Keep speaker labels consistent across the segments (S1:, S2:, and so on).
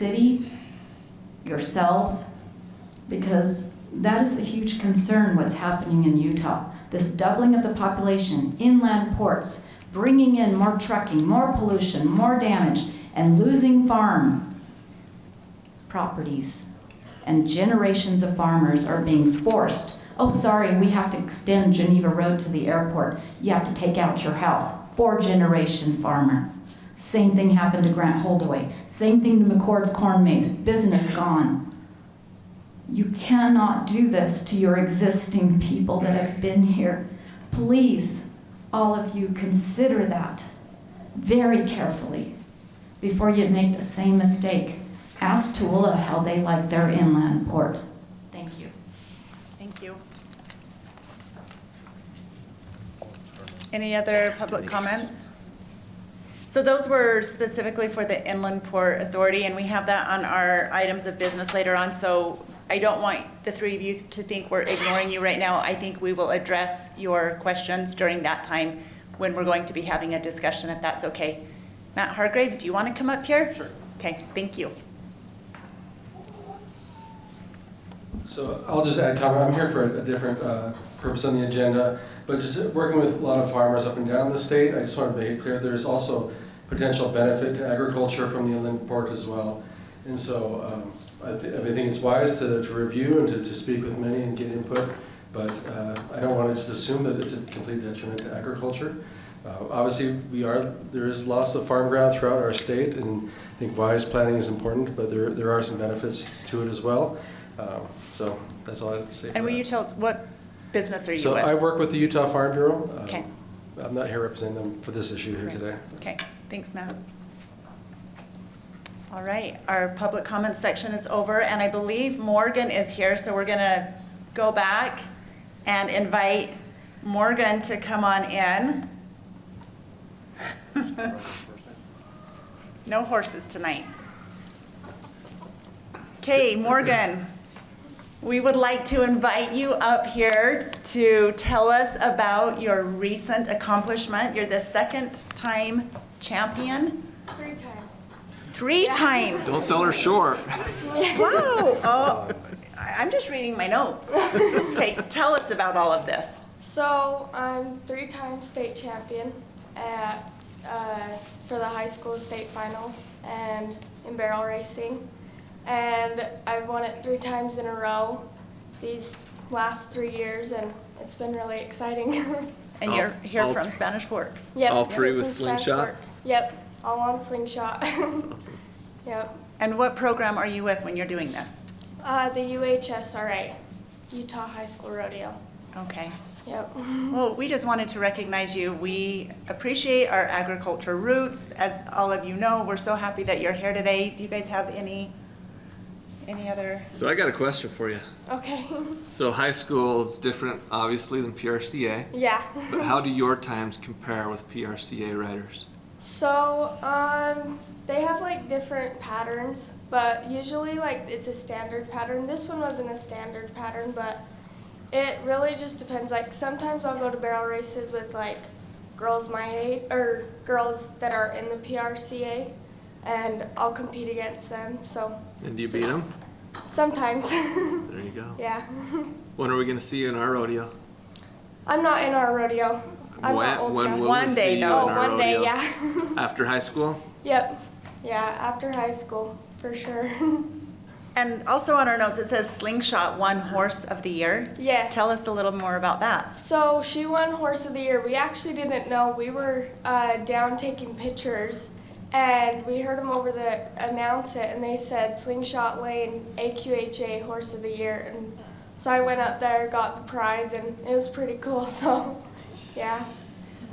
S1: city, yourselves, because that is a huge concern what's happening in Utah. This doubling of the population, inland ports, bringing in more trucking, more pollution, more damage, and losing farm properties. And generations of farmers are being forced. Oh, sorry, we have to extend Geneva Road to the airport. You have to take out your house. Four generation farmer. Same thing happened to Grant Holdaway. Same thing to McCord's corn maze. Business gone. You cannot do this to your existing people that have been here. Please, all of you, consider that very carefully before you make the same mistake. Ask Tooele how they like their inland port. Thank you.
S2: Thank you. Any other public comments? So those were specifically for the Inland Port Authority, and we have that on our items of business later on, so I don't want the three of you to think we're ignoring you right now. I think we will address your questions during that time when we're going to be having a discussion, if that's okay. Matt Hargraves, do you want to come up here? Sure. Okay, thank you.
S3: So I'll just add comment, I'm here for a different uh, purpose on the agenda, but just working with a lot of farmers up and down the state, I just want to make it clear, there's also potential benefit to agriculture from the inland port as well. And so um, I thi- I think it's wise to to review and to to speak with many and get input, but uh, I don't want to just assume that it's a complete detriment to agriculture. Uh, Obviously, we are, there is loss of farm ground throughout our state, and I think wise planning is important, but there there are some benefits to it as well. Um, So that's all I have to say for
S2: And will you
S3: that.
S2: tell us, what business are you with?
S3: So I work with the Utah Farm Bureau. Um,
S2: Okay.
S3: I'm not here representing them for this issue here
S2: Right.
S3: today.
S2: Okay, thanks, Matt. All right, our public comment section is over, and I believe Morgan is here, so we're gonna go back and invite Morgan to come on in. No horses tonight. Okay, Morgan, we would like to invite you up here to tell us about your recent accomplishment. You're the second-time champion,
S4: Three times.
S2: three-time.
S5: Don't sell her short.
S2: Wow. Oh, I- I'm just reading my notes. Okay, tell us about all of this.
S4: So I'm three-time state champion at uh, for the high school state finals and in barrel racing, and I've won it three times in a row these last three years, and it's been really exciting.
S2: And you're
S5: All-
S2: here
S5: all
S2: from
S5: th-
S2: Spanish Fork.
S4: yep.
S5: All three with
S4: from Spanish
S5: slingshot?
S4: Fork. Yep, all on slingshot. yep.
S2: And what program are you with when you're doing this?
S4: Uh, the UHSRA, Utah High School Rodeo.
S2: Okay.
S4: Yep.
S2: Well, we just wanted to recognize you. We appreciate our agriculture roots. As all of you know, we're so happy that you're here today. Do you guys have any, any other?
S5: So I got a question for you.
S4: Okay.
S5: So high school is different, obviously, than PRCA.
S4: yeah.
S5: But how do your times compare with PRCA riders?
S4: So, um, they have like different patterns, but usually like it's a standard pattern. This one wasn't a standard pattern, but it really just depends. Like sometimes I'll go to barrel races with like girls my age or girls that are in the PRCA, and I'll compete against them. So
S5: And do you beat them?
S4: sometimes,
S5: There you go.
S4: yeah.
S5: When are we gonna see you in our rodeo?
S4: I'm not in our rodeo. I'm
S5: When-
S4: not old
S5: When
S4: enough.
S5: will
S2: One
S5: we
S2: day,
S5: see you in
S2: though.
S4: oh,
S5: our rodeo?
S4: one day, yeah.
S5: After high school?
S4: yep. Yeah, after high school for sure.
S2: And also on our notes, it says slingshot won horse of the year.
S4: yes.
S2: Tell us a little more about that.
S4: So she won Horse of the Year. We actually didn't know. We were uh, down taking pictures, and we heard them over the announce it, and they said Slingshot Lane AQHA Horse of the Year, and so I went up there, got the prize, and it was pretty cool. So, yeah,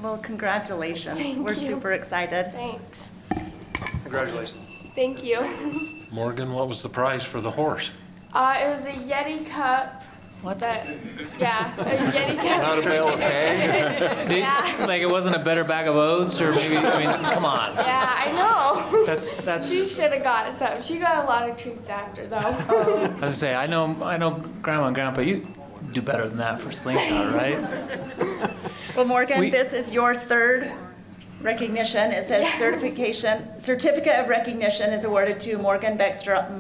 S2: Well, congratulations.
S4: Thank
S2: We're
S4: you.
S2: super excited.
S4: thanks.
S5: Congratulations.
S4: Thank you.
S6: Morgan, what was the price for the horse?
S4: Uh, it was a Yeti cup. What? That, yeah, a Yeti cup.
S5: Not a bale of hay?
S4: Yeah.
S7: Like it wasn't a better bag of oats, or maybe I mean, come on,
S4: Yeah, I know.
S7: that's
S4: She
S7: that's.
S4: should have got something. She got a lot of treats after though.
S7: I was gonna say I know I know Grandma and Grandpa, you do better than that for slingshot, right?
S2: Well, Morgan,
S7: We-
S2: this is your third recognition, it says certification, certificate of recognition is awarded to Morgan Baxter